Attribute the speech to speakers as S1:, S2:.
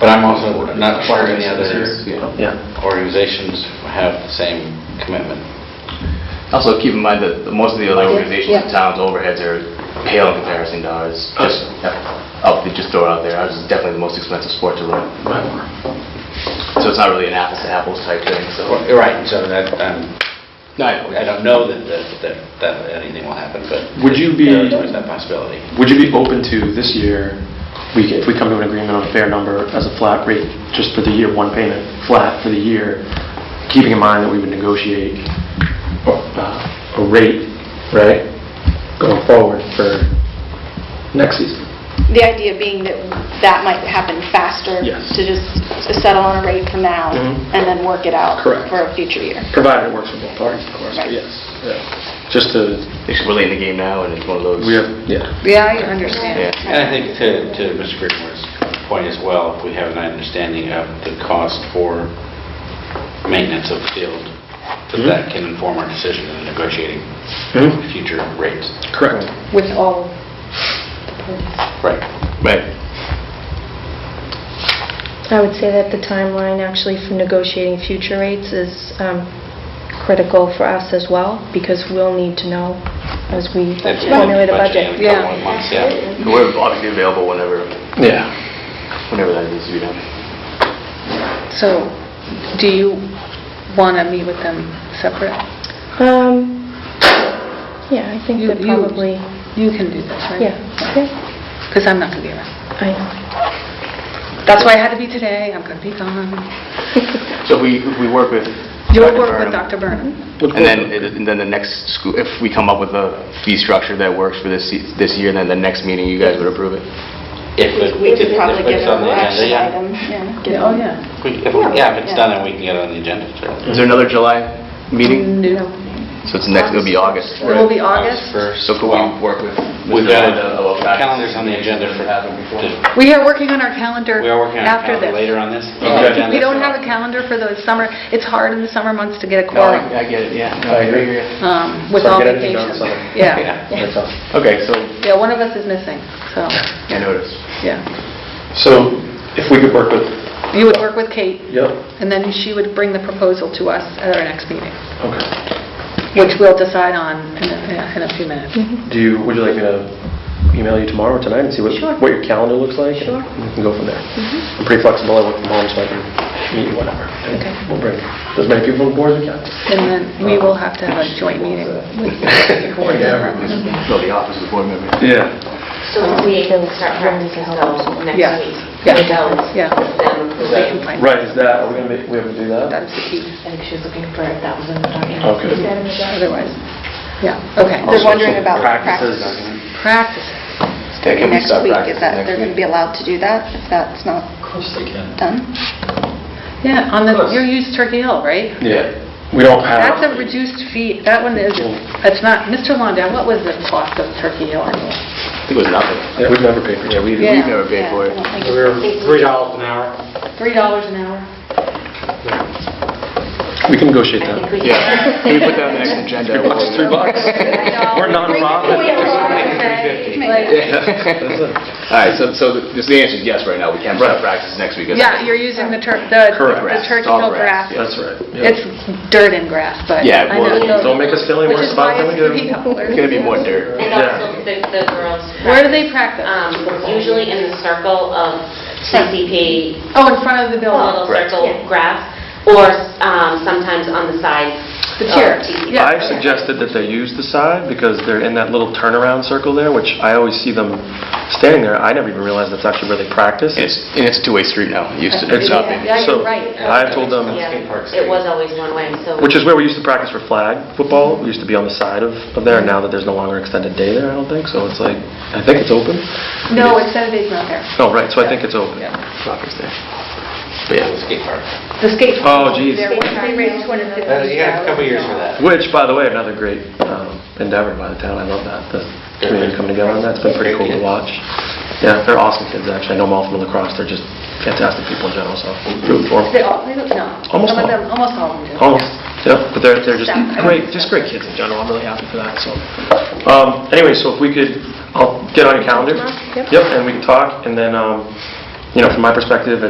S1: But Um, I'm also not sure any other
S2: Yeah.
S1: organizations have the same commitment.
S2: Also, keep in mind that the- most of the other
S3: Budget,
S2: organizations in
S3: yeah.
S2: towns overheads are pale in comparison to ours.
S1: Oh.
S2: Just, yeah. oh, they just throw it out there, ours is definitely the most expensive sport to run. So it's not really an apples to apples type thing, so.
S1: Well, Right, so that, um,
S2: No,
S1: I don't know that, that- that, that anything will happen, but.
S4: Would you be-
S1: There is that possibility.
S4: Would you be open to this year, we, if we come to an agreement on a fair number as a flat rate, just for the year, one payment, flat for the year, keeping in mind that we would negotiate uh, a rate, right, going forward for next season?
S3: The idea being that that might happen faster.
S4: Yes.
S3: To just settle on a rate for now
S4: Mhm.
S5: Mm-hmm.
S3: and then work it out.
S4: Correct.
S3: For a future year.
S4: Provided it works for both parties, of course, but
S3: Right.
S4: yes. yeah. Just to,
S2: It's really in the game now, and it's one of those.
S4: we have, yeah.
S6: Yeah, I understand.
S2: Yeah.
S1: And I think to, to Mr. Creedmore's point as well, if we have an understanding of the cost for maintenance of the field, that
S4: Hmm?
S1: that can inform our decision in negotiating
S4: Mhm.
S1: future rates.
S4: Correct.
S6: With all the parties.
S1: Right.
S2: Right.
S7: I would say that the timeline actually for negotiating future rates is um, critical for us as well, because we'll need to know as we
S1: That's
S7: formulate a
S1: budget in a
S7: budget.
S6: yeah.
S1: couple of months, yeah.
S2: So We're obviously available whenever,
S4: Yeah.
S2: whenever that needs to be done.
S6: So, do you want to meet with them separate?
S7: Um, Yeah, I think
S6: You-
S7: that
S6: you-
S7: probably,
S6: You can do this, right?
S7: yeah, yeah,
S6: Because I'm not going to be around.
S7: I know.
S6: That's why I had to be today, I'm going to be gone.
S2: So if we, if we work with.
S6: You'll work with
S2: Burnham-
S6: Dr.
S4: Mm-hmm.
S6: Burnham?
S2: And then, and then the next school, if we come up with a fee structure that works for this, se- this year, then the next meeting, you guys would approve it?
S1: If it-
S3: We
S1: if
S3: could
S1: it-
S3: probably
S1: if
S3: get
S1: it's on
S3: an
S1: the
S3: action
S1: agenda,
S3: item. Yeah. get
S6: Oh,
S3: it.
S6: yeah.
S1: If we- if we- Yeah, if it's
S3: Yeah.
S1: done, and we can get it on the agenda, certainly.
S2: Is there another July meeting?
S6: No.
S2: So it's next, it'll be August.
S6: It will be August.
S1: First.
S2: So could we work with?
S1: We've
S2: Mr.
S1: got
S2: Honda about
S1: a-
S2: that?
S1: calendars on the agenda for, to-
S6: We are working on our calendar
S1: we are working on a
S6: after
S1: calendar
S6: this.
S1: later on this.
S2: Okay.
S6: We don't have a calendar for the summer, it's hard in the summer months to get a
S2: No,
S6: quorum
S2: I I get it, yeah. No,
S4: I agree.
S2: yeah.
S6: um, with
S4: So
S6: all
S4: get everything done
S6: vacations.
S4: summer.
S6: Yeah,
S4: That's all.
S2: Okay, so,
S6: yeah, one of us is missing, so,
S2: I noticed.
S6: yeah.
S4: So if we could work with,
S6: You would work with Kate,
S4: yep,
S6: and then she would bring the proposal to us at our next meeting,
S4: okay.
S6: which we'll decide on in a in a few minutes.
S4: Do you, would you like me to email you tomorrow or tonight and see what,
S7: Sure.
S4: what your calendar looks like?
S7: Sure.
S4: And we can go from there. I'm pretty flexible, I work from home, so I can meet you whenever. And
S7: Okay.
S4: We'll bring as many people on board as we can.
S6: And then we will have to have a joint meeting with the coordinator.
S2: No, the office of the board member.
S4: Yeah.
S8: So we can start practicing those next
S6: Yeah.
S8: week.
S6: Yeah.
S8: Without
S6: Yeah.
S8: them
S6: We can find-
S4: Right, is that, are we gonna make, we have to do that?
S6: That's the key,
S8: I think she was looking for a thousand dollars.
S4: Okay.
S6: otherwise, yeah, okay.
S3: They're wondering about the
S4: Practices.
S3: practices.
S6: Practices.
S2: Okay, can we
S3: Next
S2: start
S3: week,
S2: practicing
S3: is that,
S2: next
S3: they're going to
S2: week?
S3: be allowed to do that if that's not done?
S6: Yeah, on the, you used Turkey Hill, right?
S4: Yeah. We don't have.
S6: That's a reduced fee, that one is, it's not, Mr. London, what was the cost of Turkey Hill annually?
S2: I think it was nothing.
S4: Yeah, We've never paid for
S2: Yeah,
S4: it.
S2: we, we've
S6: Yeah.
S2: never paid
S3: Yeah,
S2: for
S3: I
S2: it.
S3: don't think
S5: We're
S3: it's-
S5: three dollars an hour.
S6: Three dollars an hour?
S4: We can negotiate
S8: I think
S4: that.
S8: we can.
S2: Yeah. Can we put that on the next agenda?
S4: Three bucks, three bucks. We're nonprofit.
S2: Yeah. All right, so, so the this- the answer is yes right now. We can start practice next week. isn't
S6: Yeah,
S2: it?
S6: you're using the Tur, the
S4: Correct.
S6: the
S2: Grass,
S6: Turkey
S2: all
S6: Hill
S2: grass,
S6: grass.
S2: yeah.
S4: That's right. yeah.
S6: It's dirt and grass, but.
S2: Yeah,
S6: I
S2: well,
S6: know.
S4: Don't make us feel any
S6: Which
S4: worse
S6: is
S4: about
S6: why
S4: it than we do.
S6: it's three dollars.
S2: It's gonna be more dirt.
S8: And also the the girls.
S6: Where do they practice?
S8: Um, Usually in the circle of TCP,
S6: Oh, in front of the
S8: a little
S6: building.
S2: Correct.
S8: circle grass, or um, sometimes on the sides.
S6: The
S8: of
S6: tier,
S8: TCP.
S6: yeah.
S4: I've suggested that they use the side because they're in that little turnaround circle there, which I always see them standing there. I never even realized that's actually where they practice.
S2: And it's, and it's a two-way street now. It used to
S4: It's-
S2: it's not.
S6: Yeah, yeah,
S4: so
S6: you're right.
S4: I've told them,
S1: Skate park
S8: Yeah, it was always one way, so.
S4: which is where we used to practice for flag football. We used to be on the side of, of there. Now that there's no longer extended day there, I don't think. So it's like, I think it's open.
S1: Oh.
S6: No, it's Saturday's not there.
S4: Oh, right. So I think it's open.
S6: Yeah.
S2: Soccer's there. But
S1: Yeah,
S2: yeah.
S1: the skate park.
S6: The skate.
S4: Oh, geez.
S6: There was- They raised
S1: Uh, You have a couple
S6: $250.
S1: years for that.
S4: Which, by the way, another great um, endeavor by the town. I love that. The community coming together on that. It's been pretty cool to watch. Yeah, they're awesome kids, actually. I know them all from lacrosse. They're just fantastic people in general, so root for them.
S6: They all, they don't, no.
S4: Almost
S6: Some of
S4: all.
S6: them, almost all of them do.
S4: Almost, yeah, but they're, they're just
S6: Stuff.
S4: great, just great kids in general, I'm really happy for that, so. Um, anyway, so if we could, I'll get on your calendar.
S7: Tomorrow? Yep.
S4: and we can talk, and then, um, you know, from my perspective,